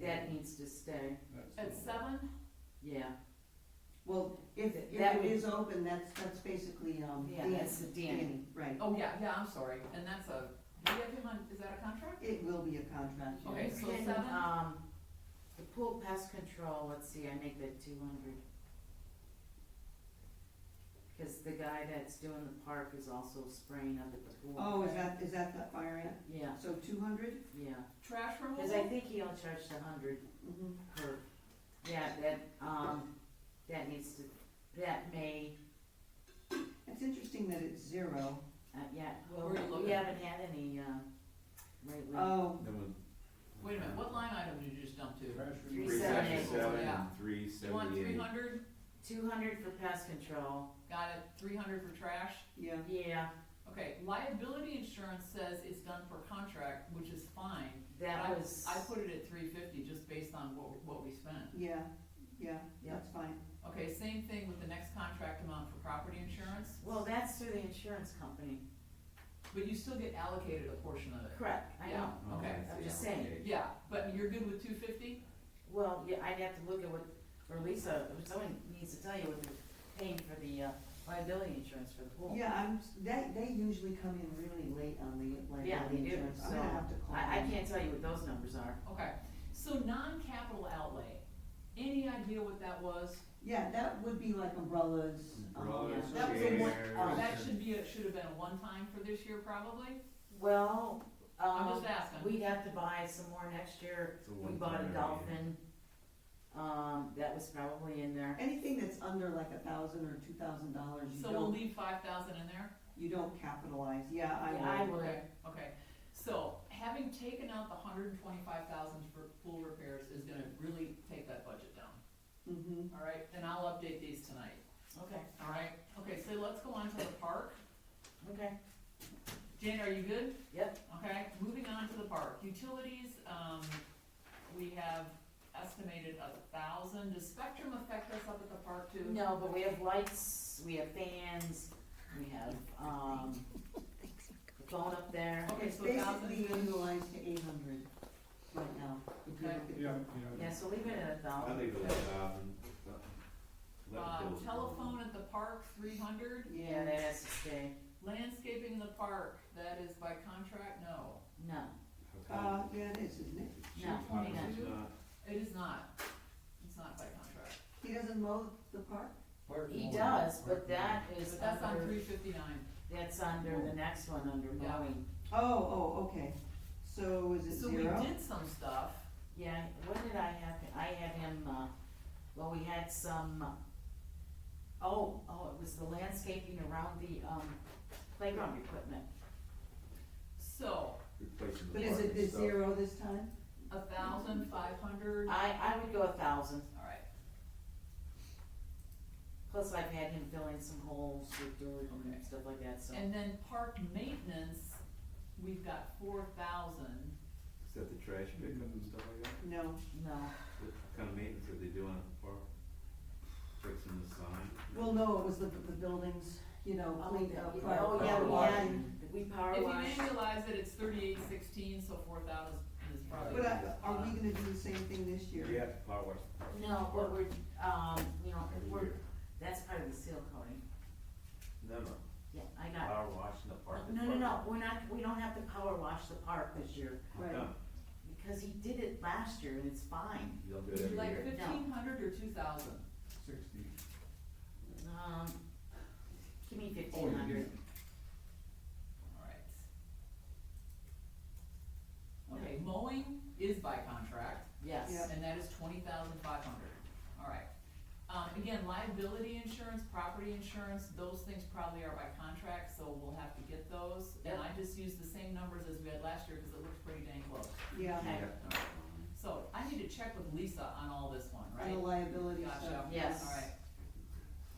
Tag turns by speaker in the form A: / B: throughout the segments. A: that needs to stay,
B: At seven?
A: yeah.
C: Well, if, if
A: That
C: it
A: would-
C: is open, that's, that's basically, um,
A: Yeah, that's the Danny.
C: Right,
B: Oh, yeah, yeah, I'm sorry, and that's a, do you have him on, is that a contract?
C: it will be a contract.
B: Okay, so
A: Can,
B: seven?
A: Um, the pool pest control, let's see, I make that two hundred. Cause the guy that's doing the park is also spraying up at the pool.
C: Oh, is that, is that the fire ant?
A: Yeah,
C: So two hundred?
A: yeah,
B: Trash removal?
A: cause I think he only charged a hundred
C: Mm-hmm.
A: per, yeah, that, um, that needs to, that may,
C: It's interesting that it's zero.
A: uh, yeah,
B: Where are you
A: well, we
B: looking?
A: haven't had any, uh, lately.
C: Oh,
B: Wait a minute, what line item did you just jump to?
A: Three
D: Three
A: seventy-eight.
D: seventy-seven
B: Yeah.
D: and three
B: You want three
D: seventy-eight.
B: hundred,
A: Two hundred for pest control,
B: got it, three hundred for trash?
C: yeah,
A: yeah,
B: Okay, liability insurance says it's done per contract, which is fine.
A: that
B: I-
A: was.
B: I put it at three fifty just based on what, what we spent.
C: yeah, yeah, that's fine.
B: Okay, same thing with the next contract amount for property insurance,
A: Well, that's through the insurance company.
B: but you still get allocated a portion of it.
A: Correct. I know.
B: Yeah,
D: Oh,
B: okay.
A: I'm just saying.
B: Yeah, but you're good with two fifty?
A: Well, yeah, I'd have to look at what, or Lisa, or someone needs to tell you what they're paying for the uh, liability insurance for the pool.
C: Yeah, I'm, s- they, they usually come in really late on the
A: Yeah, they
C: liability
A: do,
C: insurance. I'm
A: so
C: gonna have to call
A: I, I
C: them.
A: can't tell you what those numbers are.
B: Okay, so non-capital outlay, any idea what that was?
C: Yeah, that would be like umbrellas. um,
D: Brothers,
C: that was a one-
D: chairs.
A: Oh,
B: That should be, a- should have been a one-time for this year probably,
A: Well,
B: I'm just
A: um,
B: asking.
A: we'd have to buy some more next year.
D: It's a
A: We
D: one-time
A: bought a
D: area.
A: dolphin, um, that was probably in there.
C: Anything that's under like a thousand or two thousand dollars, you
B: So we'll
C: don't,
B: leave five thousand in there?
C: you don't capitalize, yeah, I
A: Yeah, I
C: would.
A: would,
B: Okay, okay, so having taken out the hundred and twenty-five thousand for pool repairs is gonna really take that budget down,
C: Mm-hmm,
B: all right? And I'll update these tonight,
A: okay,
B: all right? Okay, so let's go on to the park.
A: okay.
B: Jane, are you good?
A: Yep.
B: Okay, moving on to the park, utilities, um, we have estimated a thousand, does Spectrum affect us up at the park too?
A: No, but we have lights, we have fans, we have, um, the phone up there.
B: Okay, so a
C: basically
B: thousand,
C: annualized to eight hundred right now, if you
B: Okay.
C: look at
D: Yeah,
C: them.
A: Yeah, so leave it at a
D: I
A: thousand.
D: leave it at a thousand.
B: uh, telephone at the park, three hundred,
A: Yeah, that has to stay.
B: landscaping in the park, that is by contract, no.
A: No,
C: Uh, yeah, it is, isn't it?
A: no,
B: twenty
A: no.
B: nine. It is not, it's not by contract,
C: He doesn't mow the park?
A: He does, but that is
B: but that's on
A: under,
B: three fifty-nine.
A: that's under the next one, under
B: Yeah.
A: mowing.
C: Oh, oh, okay, so is it
B: So we
C: zero?
B: did some stuff,
A: Yeah, what did I have, I had him, uh, well, we had some, oh, oh, it was the landscaping around the, um, playground equipment.
B: so,
D: Replacing the
C: But is it
D: parking
C: the
D: stuff.
C: zero this time?
B: a thousand, five hundred, all
A: I, I would go a thousand.
B: right.
A: Plus, I've had him fill in some holes with dirt
B: Okay.
A: and stuff like that, so.
B: And then park maintenance, we've got four thousand.
D: Is that the trash pickup and stuff like that?
C: No,
A: No,
D: What kind of maintenance are they doing at the park? Fixing the sign?
C: well, no, it was the, the buildings, you know, cleaned up.
A: Yeah, oh, yeah,
C: power
A: we
C: washing.
A: had, we power
B: If you
A: washed.
B: annualize it, it's thirty-eight sixteen, so four thousand is probably.
C: But I- are we gonna do the same thing this year?
D: You have to power wash the park.
A: No, but we're, um, you know,
D: Every
A: we're,
D: year.
A: that's part of the seal coating.
D: No, no,
A: Yeah, I got,
D: power washing the park.
A: no, no, no, we're not, we don't have to power wash the park this year,
C: Right.
D: No,
A: because he did it last year and it's fine.
D: you don't do
B: Would
D: it every
B: you
D: year.
B: like fifteen hundred or two thousand?
E: Sixty.
A: Um, give me
E: Oh,
A: fifteen
E: you
A: hundred.
E: do.
B: Alright. Okay, mowing is by contract,
A: Yes,
C: Yep.
B: and that is twenty thousand five hundred, alright. Um, again, liability insurance, property insurance, those things probably are by contract, so we'll have to get those. And I just used the same numbers as we had last year, cause it looked pretty dang close.
C: Yeah,
A: Okay.
D: Yeah. Oh,
B: So I need to check with Lisa on all this one,
C: and the
B: right?
C: liability
B: Gotcha.
C: stuff.
A: Yes.
B: Alright.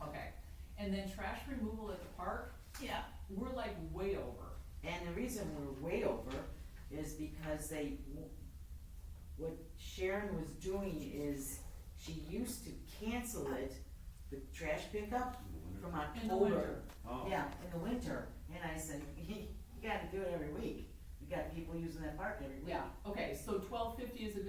B: Okay, and then trash removal at the park,
A: yeah.
B: we're like way over.
A: And the reason we're way over is because they, what Sharon was doing is, she used to cancel it, the trash pickup from October.
B: In the winter.
D: Oh.
A: Yeah, in the winter, and I said, you gotta do it every week, you got people using that park every week.
B: Yeah, okay, so twelve fifty is a good